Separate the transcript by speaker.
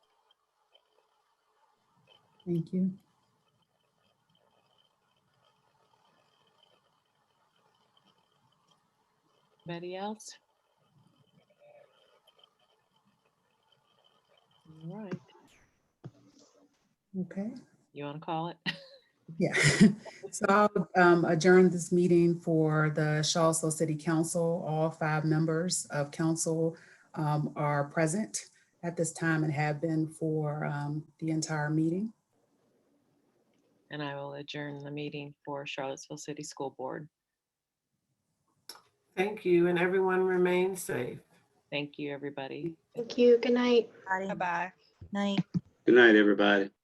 Speaker 1: Thank you.
Speaker 2: Anybody else? All right,
Speaker 1: Okay,
Speaker 2: you want to call it?
Speaker 1: yeah. So I'll um, adjourn this meeting for the Charlottesville City Council. All five members of council um, are present at this time and have been for um, the entire meeting.
Speaker 2: And I will adjourn the meeting for Charlottesville City School Board.
Speaker 3: Thank you, and everyone remain safe.
Speaker 2: Thank you, everybody.
Speaker 4: Thank you. Good night.
Speaker 5: Bye-bye. Night.
Speaker 6: Good night, everybody.